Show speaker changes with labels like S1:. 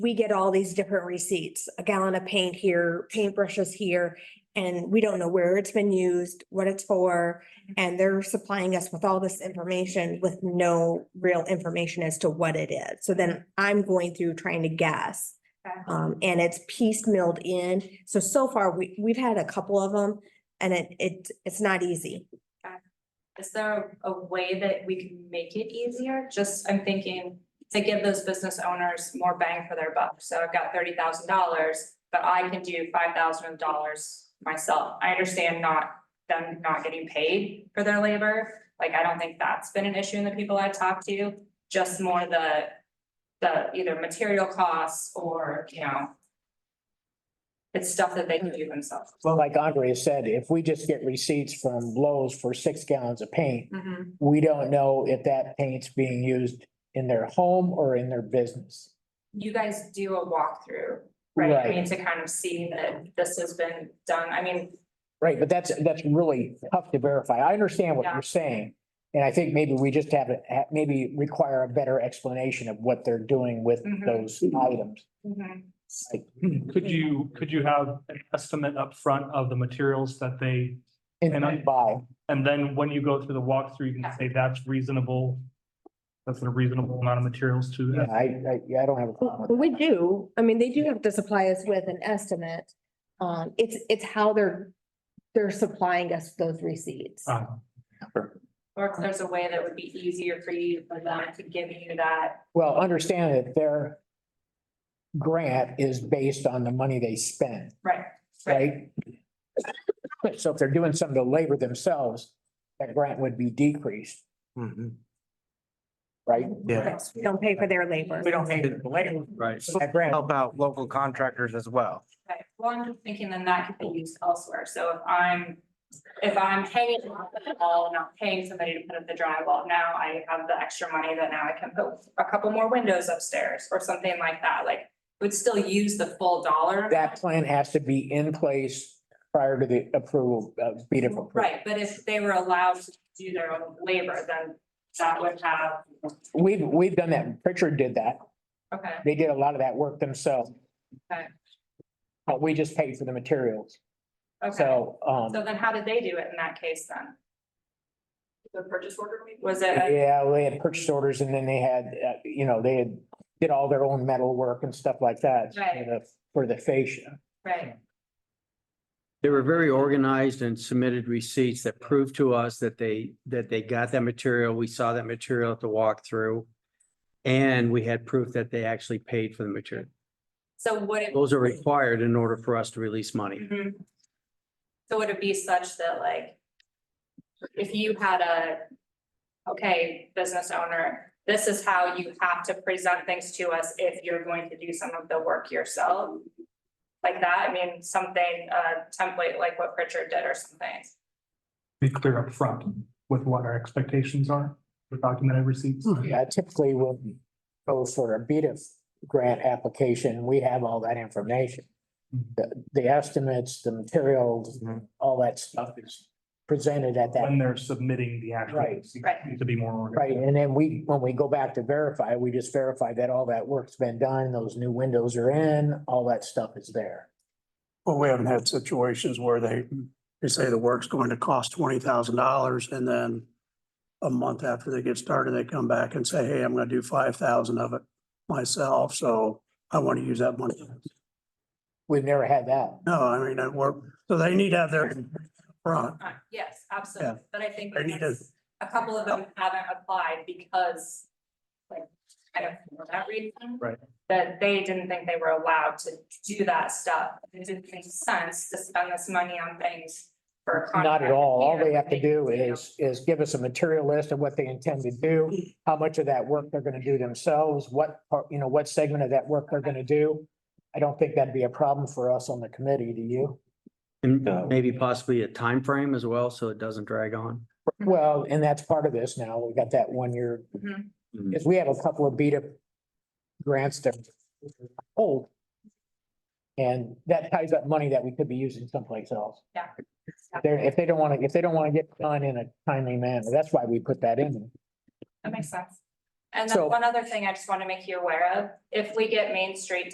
S1: we get all these different receipts, a gallon of paint here, paintbrushes here, and we don't know where it's been used, what it's for. And they're supplying us with all this information with no real information as to what it is. So then I'm going through trying to guess.
S2: Okay.
S1: Um, and it's piecemealed in. So, so far, we, we've had a couple of them and it, it, it's not easy.
S2: Is there a way that we can make it easier? Just, I'm thinking to give those business owners more bang for their buck. So I've got thirty thousand dollars, but I can do five thousand dollars myself. I understand not, them not getting paid for their labor. Like, I don't think that's been an issue in the people I talked to, just more the, the either material costs or, you know, it's stuff that they can do themselves.
S3: Well, like Andre said, if we just get receipts from Lowe's for six gallons of paint,
S2: Mhm.
S3: we don't know if that paint's being used in their home or in their business.
S2: you guys do a walkthrough, right? I
S3: Right.
S2: mean, to kind of see that this has been done, I mean,
S3: Right, but that's, that's really tough to verify. I understand what
S2: Yeah.
S3: you're saying. And I think maybe we just have, a- ha- maybe require a better explanation of what they're doing with
S1: Mm-hmm.
S2: Mhm.
S3: those items. Like,
S4: Hmm, Could you, could you have an estimate up front of the materials that they,
S3: And
S4: And I-
S3: then buy,
S4: and then when you go through the walkthrough, you can say that's reasonable. That's a reasonable amount of materials to.
S3: Yeah, I, I, yeah, I don't have a problem with that.
S1: We do, I mean, they do have to supply us with an estimate. Um, it's, it's how they're, they're supplying us those receipts.
S4: Uh,
S2: or if there's a way that would be easier for you, for them to give you that.
S3: Well, understand that their grant is based on the money they spend,
S2: Right.
S3: right? So if they're doing some of the labor themselves, that grant would be decreased, right?
S5: Yeah.
S1: We don't pay for their labor.
S5: We don't pay the labor.
S6: Right.
S3: So That grant,
S5: Help out local contractors as well.
S2: Right, well, I'm just thinking then that could be used elsewhere, so if I'm, if I'm hanging on the wall, and not paying somebody to put up the drywall, now I have the extra money that now I can put a couple more windows upstairs, or something like that, like, would still use the full dollar.
S3: that plan has to be in place prior to the approval of BDIF. approval.
S2: Right, but if they were allowed to do their own labor, then that would have,
S3: We've, we've done that. Pritchard did that.
S2: okay,
S3: They did a lot of that work themselves.
S2: Okay.
S3: But we just paid for the materials.
S2: okay.
S3: So, um,
S2: So then how did they do it in that case then? The purchase order? Was it, a-
S3: yeah, they had purchase orders and then they had, uh, you know, they had, did all their own metal work and stuff like that. for
S2: Right.
S3: the- For the fascia.
S2: right,
S6: They were very organized and submitted receipts that proved to us that they, that they got that material. We saw that material at the walkthrough. And we had proof that they actually paid for the material.
S2: so would it?
S6: Those are required in order for us to release money.
S2: Mhm. So would it be such that like, if you had a, okay, business owner, this is how you have to present things to us if you're going to do some of the work yourself? Like that, I mean, something, uh, template like what Pritchard did or something.
S4: Be clear up front with what our expectations are for documented receipts.
S3: Yeah, typically when go for a BDIF grant application, we have all that information. The, the estimates, the materials,
S5: Mhm.
S3: all that stuff is presented at that.
S4: When they're submitting the actual.
S3: Right.
S4: receipts,
S2: Right.
S4: need To be more. organized.
S3: Right, and then we, when we go back to verify, we just verify that all that work's been done, those new windows are in, all that stuff is there.
S7: Well, we haven't had situations where they, they say the work's going to cost twenty thousand dollars and then a month after they get started, they come back and say, hey, I'm gonna do five thousand of it myself, so I want to use that money.
S3: We've never had that.
S7: No, I mean, that work, so they need to have their front.
S2: Uh, Yes, absolutely, but I think
S7: I need to-
S2: that's- a couple of them haven't applied because, like, I don't know that reason.
S4: Right.
S2: That they didn't think they were allowed to do that stuff, it didn't make sense to spend this money on things for a
S3: Not at
S2: contractor
S3: all. All
S2: here
S3: they
S2: when
S3: have to do
S2: can
S3: is, is give us a material list of what they intend to do, how much of that work they're gonna do themselves, what, part- you know, what segment of that work they're gonna do. I don't think that'd be a problem for us on the committee, do you?
S6: And
S5: No.
S6: maybe possibly a time frame as well, so it doesn't drag on.
S2: Mm-hmm.
S3: Well, and that's part of this now. We got that one year.
S2: Mhm.
S3: Because we have a couple of beat up grants that are old. And that ties up money that we could be using someplace else.
S2: Yeah.
S3: They're, if they don't want to, if they don't want to get done in a timely manner, that's why we put that in.
S2: That makes sense. And
S3: So-
S2: then one other thing I just want to make you aware of, if we get Main Street